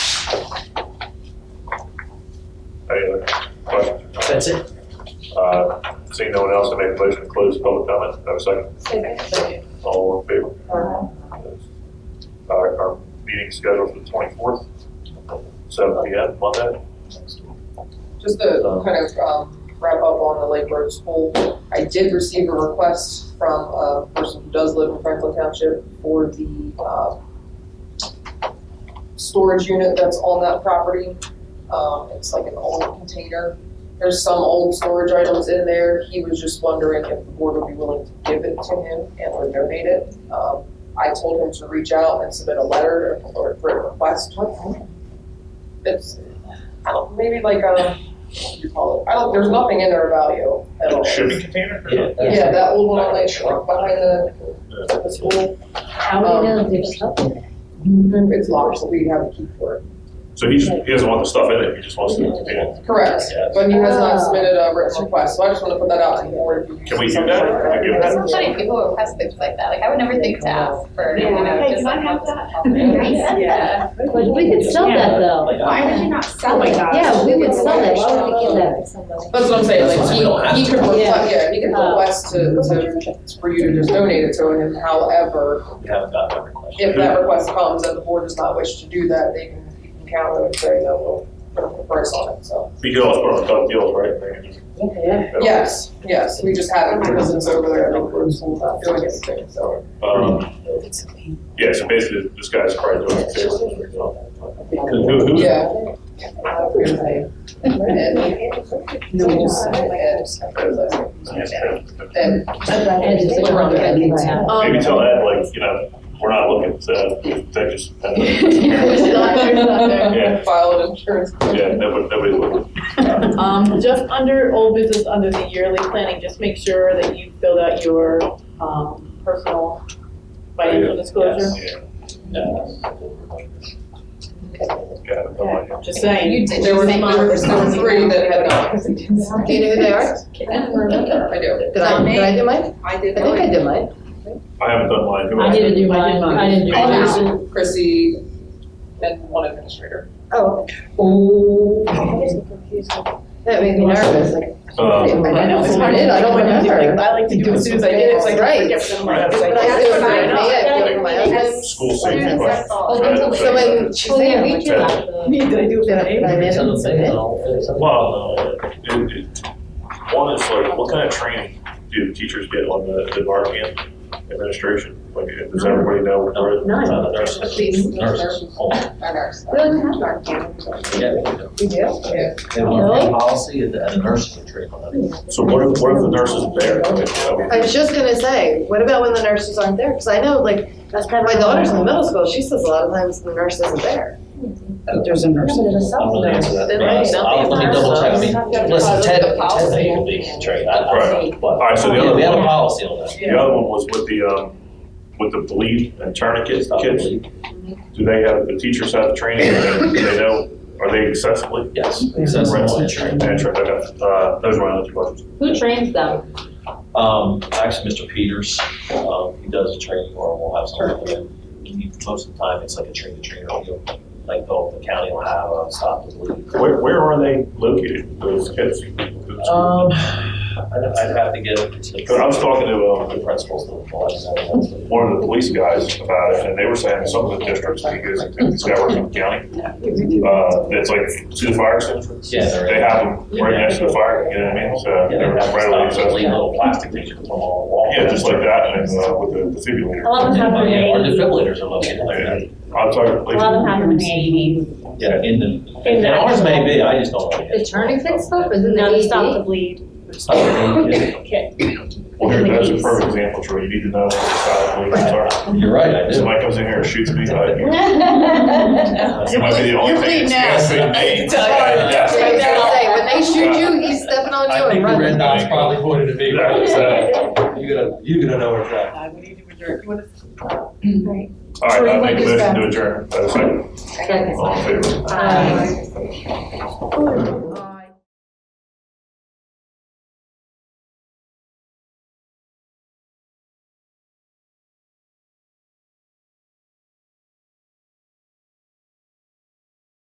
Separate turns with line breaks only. That's it.
Uh, Seeing no one else, I make a motion to close public comment. Have a second.
Second.
All in favor? Uh, Our meeting's scheduled for the 24th, seven PM, Monday.
Just to kind of um, wrap up on the Lake Road School, I did receive a request from a person who does live in Franklin Township for the um, storage unit that's on that property. Um, It's like an old container. There's some old storage items in there. He was just wondering if the board would be willing to give it to him and or donate it. Um, I told him to reach out and submit a letter or for a request. It's, I don't, maybe like, um, what do you call it? I don't, there's nothing in their value at all.
Shipping container?
Yeah.
Yeah, that old one on that truck behind the, the school,
How do you know there's stuff in there?
it's locked, so we have a key for it.
So he just, he doesn't want the stuff in it, he just wants the container.
Correct, but he has
Ah.
not submitted a written request, so I just wanna put that out to the board.
Can we do that? Can we give
It's so funny people request things like that. Like I would never think to ask for, you know,
Hey,
just
can I
like.
have
that? Yeah.
But we could sell that though.
Why would you not sell
Oh my
it?
God.
Yeah, we would sell that, why would we give that to somebody?
That's what I'm saying,
That's why we don't
like,
have
he, he could,
to.
requ-
Yeah.
yeah, he could
Ah.
request to, to, for you to just donate it to him, however,
We haven't got that request.
if that request comes and the board does not wish to do that, they can, you can counter and say, no, we'll put a price on it, so.
We could always put on the double deals, right?
Yeah.
Yes, yes, we just haven't because it's over there, and we're just not doing anything, so.
Um, Yeah, so basically, this guy's probably doing it. Who, who,
Yeah. And,
No, we just sell it.
and, and,
And it's a
Around the
company,
edges.
right?
Maybe
um,
tell Ed, like, you know, we're not looking, so they just,
there's
yeah,
not, there's not
Yeah.
there, filed insurance.
nobody, nobody's looking.
Um, just under old business, under the yearly planning, just make sure that you filled out your, um, personal financial disclosure.
Yeah. Got it, no
Okay,
idea.
Just saying.
You did.
There were, there were there were three that had not.
Do you know who they are?
I do.
Did I, did I do mine?
I did.
I think I did mine.
I haven't done mine. Who
I
else?
didn't do
I
mine,
did mine.
I didn't do
Oh,
mine.
Chrissy and one administrator.
Oh. Oh. That made me nervous, like,
Um,
I know, it's hard.
to-
I don't
when you do things,
remember.
I like to do it as soon as I get it, so I
Right.
can forget for the morning.
Right.
It's like,
But I do it for
I
me,
know.
I do it for my husband.
School safety
Students,
question.
Oh,
Right,
that's
So
right.
when she
Oh, yeah,
said,
we
we
did. that.
Did I do it for
Did I-
the
did I
eight?
miss?
Some say
Submit?
no, some-
Well, uh, it, it, one is like, what kind of training do teachers get on the, the marketing administration? Like, does everybody know what they're?
None.
Uh, nurses. Nurses. Oh,
Our
We don't have our
yeah, we do.
We do?
They want a policy and the nurse can train on that.
So what if, what if the nurse isn't there? I mean, I mean-
I was just gonna say, what about when the nurses aren't there? Because I know, like, my daughter's in middle school, she says a lot of times the nurse isn't there.
There's a nurse. I'm gonna answer that.
There
but
might be
I'll- I'll- let me double check, I mean, listen, Ted,
The policy.
Ted may be trained, I, I
Right.
but.
All right, so the other
Yeah, We have a
one-
policy on that.
The other one was with the, um, with the bleed and tourniquet kids. Do they have, the teachers have training, do they know, are they accessible?
Yes.
Right.
accessible and trained.
Yeah, sure, okay. Uh, those are my only two questions.
Who trains them?
Um, actually, Mr. Peters, um, he does a training or we'll have started with him. He- Most of the time, it's like a train to train, He'll- like the, the county will have a stop and bleed.
Where, where are they located, those kids? Because
Um, I'd, I'd have to get. I
I was talking to, um,
The principals. to let us know.
one of the police guys about it, and they were saying some of the districts, because this guy works in the county, uh, it's like to the fire extinguisher.
Yeah, they're.
They have them right next to the fire, you know what I mean? So
Yeah,
they're
they have
right away,
a stop and
so,
bleed, little plastic things you can put on the wall.
yeah, just like that, and, uh, with the defibrillator.
lot of them have
Yeah, Our
grenades.
defibrillators are located there.
I'm sorry, please.
have them in the
Yeah, in the,
In
and
the-
ours may be, I just don't know.
The tourniquet stuff, isn't
No, they
it
stop the
AED?
bleed.
It's not really-
Well, here, that's a perfect example, Troy, you need to know what the style of police are.
You're right, I do.
Somebody comes in here and shoots me, like, you might be the only
You're
thing
bleeding
that's
now.
gonna
I
save me.
can tell you.
Yeah,
So I was gonna say, when they shoot you, he's stepping on you and running.
dot's probably
pointed at
me, right? So,
you're gonna, you're gonna know where it's at.
Uh, we need to adjourn. You wanna-
All right,
Troy,
I
what
make a
is
motion
Um,
to adjourn, Have a second, all in favor?
Aye.
Um,